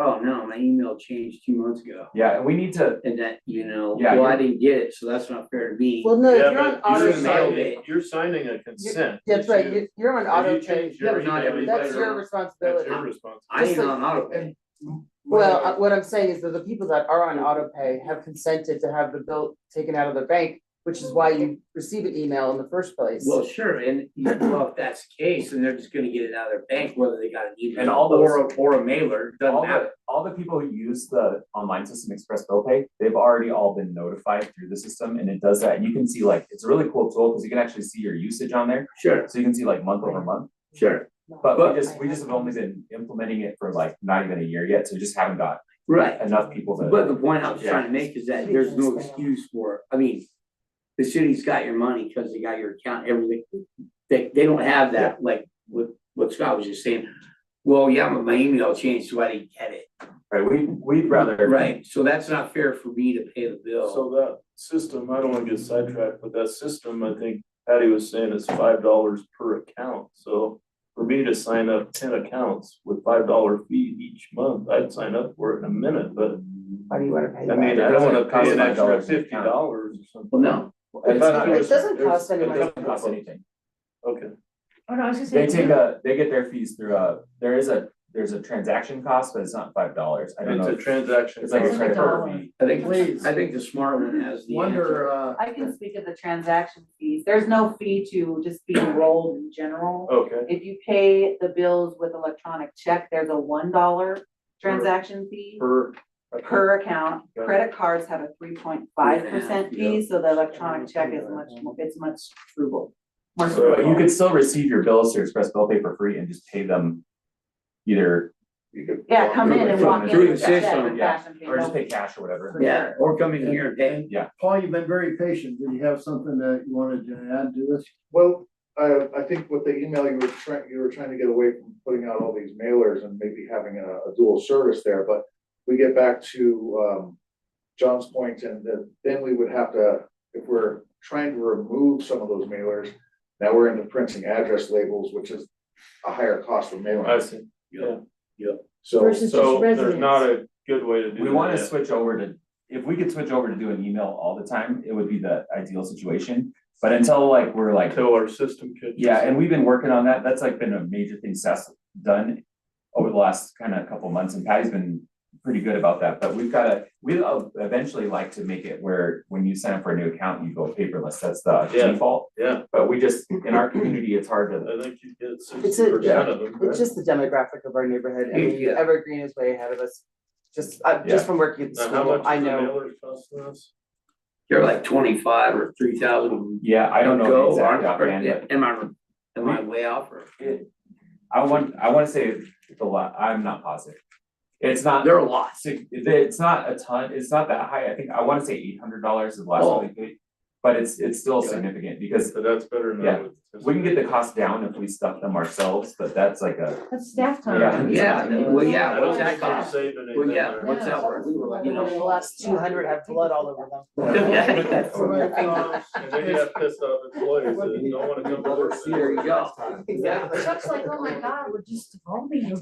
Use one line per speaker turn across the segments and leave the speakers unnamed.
oh no, my email changed two months ago.
Yeah, and we need to,
And that, you know,
Yeah,
well, I
you're-
didn't get it, so that's not fair to me.
Well, no,
Yeah,
you're on
but
auto
you're
automated.
pay.
signing, you're signing a consent.
That's right,
You-
you're, you're on
if
auto
you
pay.
change your
Yeah, not
email,
every
That's your
letter.
That's
responsibility.
your responsibility.
I ain't
just like-
on auto pay.
Well, uh, what I'm saying is that the people that are on auto pay have consented to have the bill taken out of their bank, which is why you receive an email in the first place.
Well, sure, and you know, well, if that's the case, then they're just gonna get it out of their bank, whether they got an
And
email
all
or, a- or a mailer, doesn't
all
matter.
the, all the people who use the online system Express Bill Pay, they've already all been notified through the system and it does that. You can see like, it's a really cool tool because you can actually see your usage on there.
Sure,
So you can see like month over month,
sure,
but
But-
we just, we just have only been implementing it for like not even a year yet, so we just haven't got
right.
enough people to.
But the point I was trying to make is that there's no excuse for, it. I mean, the city's got your money because they got your account, everything. They, they don't have that, like, what, what Scott was just saying. Well, yeah, but my email changed, so I didn't get it.
Right, we, we'd rather.
Right, so that's not fair for me to pay the bill.
So that system, I don't wanna get sidetracked, but that system, I think Patty was saying is five dollars per account, so. For me to sign up ten accounts with five dollar fee each month, I'd sign up for it in a minute, but
Why do you wanna pay
I mean,
that?
I don't wanna pay
Cost five
an extra
dollars an
fifty
account.
dollars or something.
Well, no,
It's not,
It
it
doesn't cost anyone.
doesn't cost anything.
Okay.
Oh, no, I was just
They
saying.
take a, they get their fees through a, there is a, there's a transaction cost, but it's not five dollars. I don't
It's
know.
a transaction.
It's like a
It's like a
credit card
dollar.
fee.
I think,
Please.
I think the smart one has the answer.
Wonder, uh,
I can speak of the transaction fees. There's no fee to just be enrolled in general.
Okay,
If you pay the bills with electronic check, there's a one dollar transaction fee
per.
per account.
Got it.
Credit cards have a three point five percent
Yeah, yeah.
fee, so the electronic check is much, more. it's much frugal. More
So
But uh, you
frugal.
could still receive your bills through Express Bill Pay for free and just pay them either,
Yeah, come in and walk in
Through the
with a check
system,
and
yeah.
cash and pay.
or just
No
pay cash or whatever.
Yeah, or come in here and pay.
And-
Yeah.
Paul, you've been very patient. Did you have something that you wanted to add to this?
Well, I, I think with the email you were trying, you were trying to get away from putting out all these mailers and maybe having a, a dual service there, but we get back to, um, John's point and then, then we would have to, if we're trying to remove some of those mailers, now we're into printing address labels, which is a higher cost of
I
mailing.
see,
So,
Versus
so there's not a good way to do that.
We wanna switch over to, if we could switch over to doing email all the time, it would be the ideal situation. But until like, we're like,
Until our system could.
Yeah, and we've been working on that. That's like been a major thing Seth's done over the last kind of couple months and Patty's been pretty good about that, but we've gotta, we'd uh, eventually like to make it where when you sign up for a new account, you go paperless. That's the
Yeah.
default.
Yeah.
But we just, in our community, it's hard to,
I think you get
a-
sixty percent of them. right?
It's just the demographic of our neighborhood. I mean,
Yeah.
Evergreen is way ahead of us. Just, uh, just from working at the
Now, how
school,
much
I
is the
know.
mailer costing us?
They're like twenty-five or three thousand.
yeah, I don't know the exact offhand, but
Am I, am I way off or?
I want, I wanna say the lot, I'm not positive. It's not,
There are lots.
sig- it's not a ton, it's not that high. I think, I wanna say eight hundred dollars is the last
Oh.
one we paid. But it's, it's still
Yeah.
significant because
But that's better than.
Yeah. We can get the cost down if we stuff them ourselves, but that's like a,
That's staff
Yeah.
time.
Yeah, well, yeah,
I don't
what's that
think you're
cost?
saving anything
Well, yeah,
there.
what's that worth? You know?
The last two hundred have blood all over them.
There
Oh
And then you have pissed off employees that don't wanna come to work.
you go. Exactly.
Chuck's like, oh my God, we're just evolving.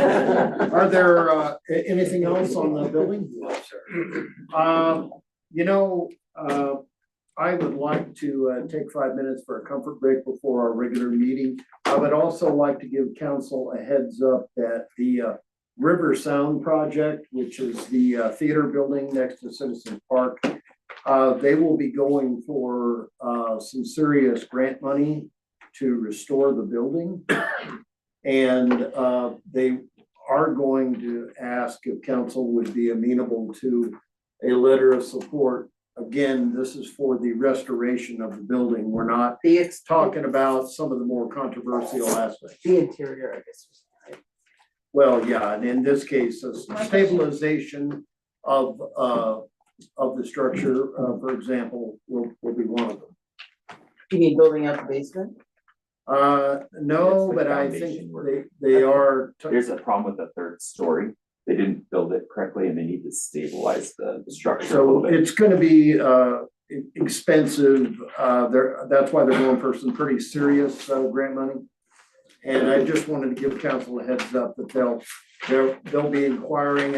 Are there, uh, a- anything else on the building?
No, sir.
Um, you know, uh, I would like to, uh, take five minutes for a comfort break before our regular meeting. I would also like to give council a heads up that the, uh, River Sound Project, which is the, uh, theater building next to Citizen Park, uh, they will be going for, uh, some serious grant money to restore the building. And, uh, they are going to ask if council would be amenable to a letter of support. Again, this is for the restoration of the building. We're not
The, ex-
talking about some of the more controversial aspects.
the interior, I guess.
Well, yeah, and in this case, a stabilization of, uh, of the structure, uh, for example, will, will be one of them.
You mean building out the basement?
Uh,
That's
no,
the
but I think
foundation work.
they, they are,
there's a problem with the third story. They didn't build it correctly and they need to stabilize the the structure a little
so
bit.
it's gonna be, uh, e- expensive. Uh, they're, that's why they're going for some pretty serious, uh, grant money. And I just wanted to give council a heads up that they'll, they're, they'll be inquiring